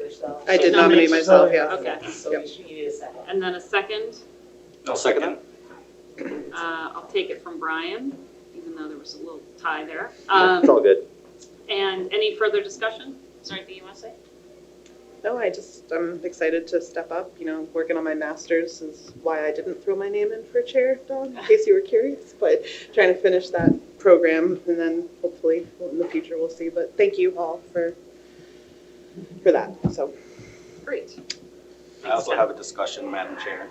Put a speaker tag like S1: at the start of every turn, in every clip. S1: yourself.
S2: I did nominate myself, yeah.
S3: Okay,
S1: So you should- you need a second.
S3: and then a second,
S4: I'll second it.
S3: uh, I'll take it from Brian, even though there was a little tie there.
S4: It's
S3: Um,
S4: all good.
S3: And any further discussion? Is there anything you want to say?
S2: No, I just, I'm excited to step up, you know, working on my master's is why I didn't throw my name in for chair, Dawn, in case you were curious, but trying to finish that program and then hopefully in the future we'll see, but thank you all for, for that, so.
S3: Great.
S4: I also have a discussion, Madam Chair.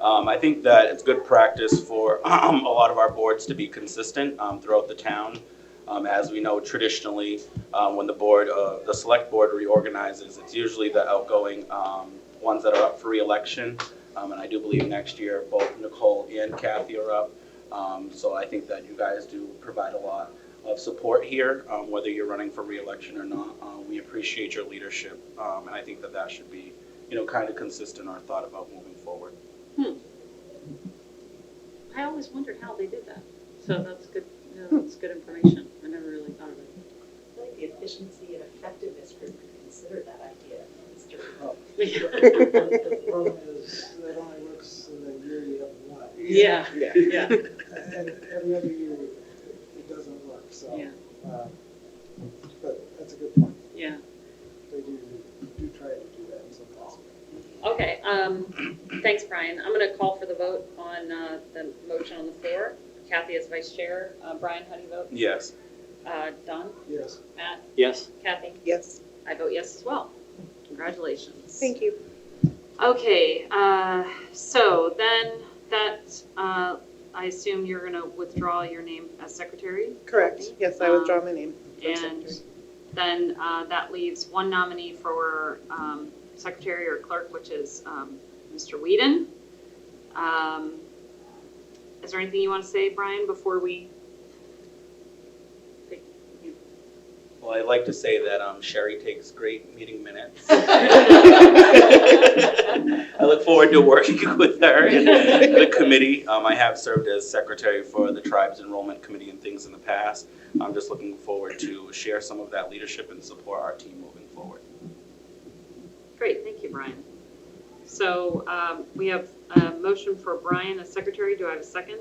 S4: Um, I think that it's good practice for a lot of our boards to be consistent um, throughout the town. Um, As we know, traditionally, uh, when the board, uh, the select board reorganizes, it's usually the outgoing um, ones that are up for reelection. Um, And I do believe next year, both Nicole and Kathy are up. Um, So I think that you guys do provide a lot of support here, um, whether you're running for reelection or not. Uh, We appreciate your leadership, um, and I think that that should be, you know, kind of consistent or thought about moving forward.
S3: I always wondered how they did that, Hmm. so that's good, you know, that's good information, I never really thought of
S1: I like the efficiency and effectiveness group could consider that idea, Mr. Rowe.
S3: it.
S5: The problem is, that only works in the year you have one.
S3: Yeah,
S2: Yeah.
S3: yeah,
S5: And every other year, it doesn't work, so.
S3: Yeah.
S5: um, But that's a good point.
S3: yeah.
S5: They do, do try to do that in some places.
S3: Okay, um, thanks, Brian. I'm gonna call for the vote on, uh, the motion on the floor. Kathy as vice chair, uh, Brian, how do you vote?
S4: Yes.
S3: Uh, Don,
S5: Yes.
S3: Matt,
S4: Yes.
S3: Kathy?
S2: Yes,
S3: I vote yes as well. Congratulations.
S2: thank you.
S3: Okay, uh, so then that, uh, I assume you're gonna withdraw your name as secretary?
S2: Correct, yes, I withdraw my name. from
S3: And
S2: secretary.
S3: then uh, that leaves one nominee for um, secretary or clerk, which is um, Mr. Whedon. Um, Is there anything you want to say, Brian, before we?
S4: Well, I'd like to say that um, Sherry takes great meeting minutes. I look forward to working with her and the committee. Um, I have served as secretary for the tribe's enrollment committee and things in the past. I'm just looking forward to share some of that leadership and support our team moving forward.
S3: Great, thank you, Brian. So um, we have a motion for Brian as secretary. Do I have a second?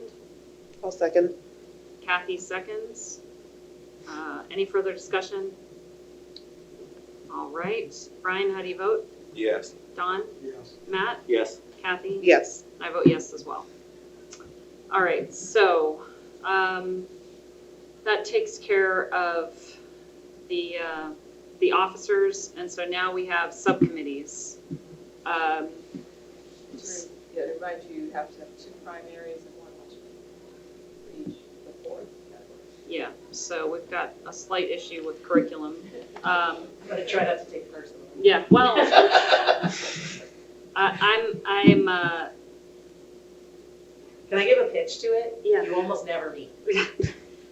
S2: I'll second.
S3: Kathy seconds. Uh, Any further discussion? All right, Brian, how do you vote?
S4: Yes.
S3: Don,
S5: Yes.
S3: Matt,
S4: Yes.
S3: Kathy?
S2: Yes,
S3: I vote yes as well. All right, so um, that takes care of the, uh, the officers, and so now we have subcommittees. Um,
S6: Just to remind you, you have to have two primaries and one alternate for each of the four categories.
S3: Yeah, so we've got a slight issue with curriculum. Um,
S1: I'm gonna try not to take personal.
S3: Yeah, well, I- I'm, I'm, uh,
S1: Can I give a pitch to it?
S3: Yeah.
S1: You almost never meet.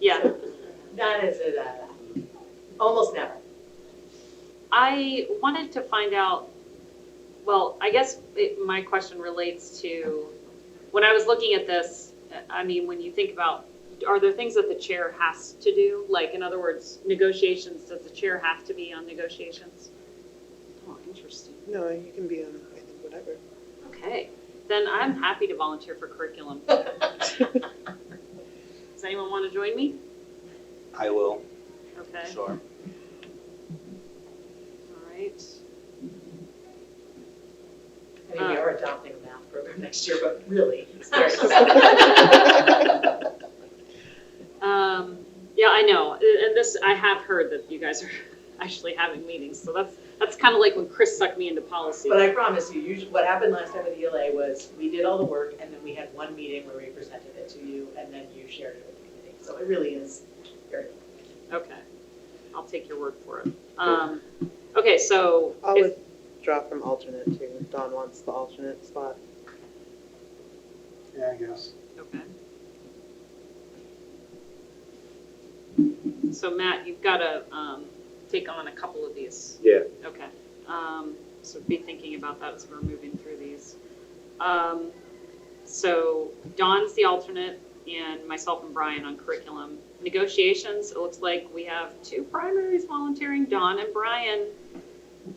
S3: yeah,
S1: Not as a, uh, almost never.
S3: I wanted to find out, well, I guess it, my question relates to, when I was looking at this, I mean, when you think about, are there things that the chair has to do? Like, in other words, negotiations, does the chair have to be on negotiations? Oh, interesting.
S2: no, you can be on, I think, whatever.
S3: Okay, then I'm happy to volunteer for curriculum. Does anyone want to join me?
S4: I will,
S3: Okay, all
S4: sure.
S3: right.
S1: I mean, we
S3: Uh.
S1: are adopting a math program next year, but really, it's very.
S3: Um, yeah, I know, A- and this, I have heard that you guys are actually having meetings, so that's, that's kind of like when Chris sucked me into policy.
S1: But I promise you, usually, what happened last time with ELA was, we did all the work, and then we had one meeting where we presented it to you, and then you shared it with the committee. So it really is very.
S3: Okay, I'll take your word for it. Um, okay, so,
S2: I'll
S3: if-
S2: withdraw from alternate too, if Dawn wants the alternate spot.
S5: Yeah, I guess.
S3: okay. So Matt, you've got to, um, take on a couple of these.
S4: Yeah.
S3: Okay, um, so be thinking about that as we're moving through these. Um, so Don's the alternate and myself and Brian on curriculum. Negotiations, it looks like we have two primaries volunteering, Don and Brian.